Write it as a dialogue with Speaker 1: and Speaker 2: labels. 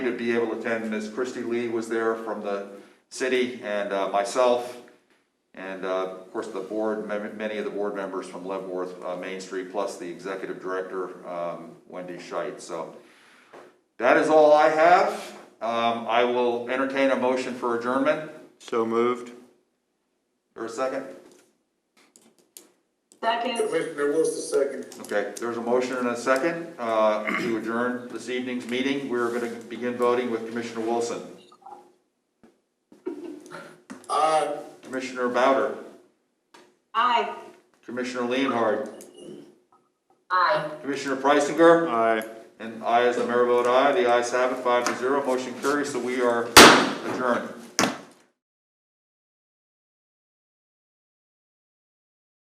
Speaker 1: to be able to attend. Ms. Christy Lee was there from the city and uh, myself. And uh, of course, the board, mem- many of the board members from Leavenworth, uh, Main Street, plus the executive director, um, Wendy Scheit. So that is all I have. Um, I will entertain a motion for adjournment.
Speaker 2: So moved.
Speaker 1: Or a second?
Speaker 3: Second,
Speaker 4: Commissioner Wilson, second.
Speaker 1: Okay, there's a motion and a second uh, to adjourn this evening's meeting. We're going to begin voting with Commissioner Wilson.
Speaker 4: Aye.
Speaker 1: Commissioner Bowder,
Speaker 3: aye.
Speaker 1: Commissioner Leonhard,
Speaker 3: Aye.
Speaker 1: Commissioner Preisinger,
Speaker 2: Aye.
Speaker 1: and I as the mayor vote aye. The ayes have it, five to zero. Motion carries, so we are adjourned.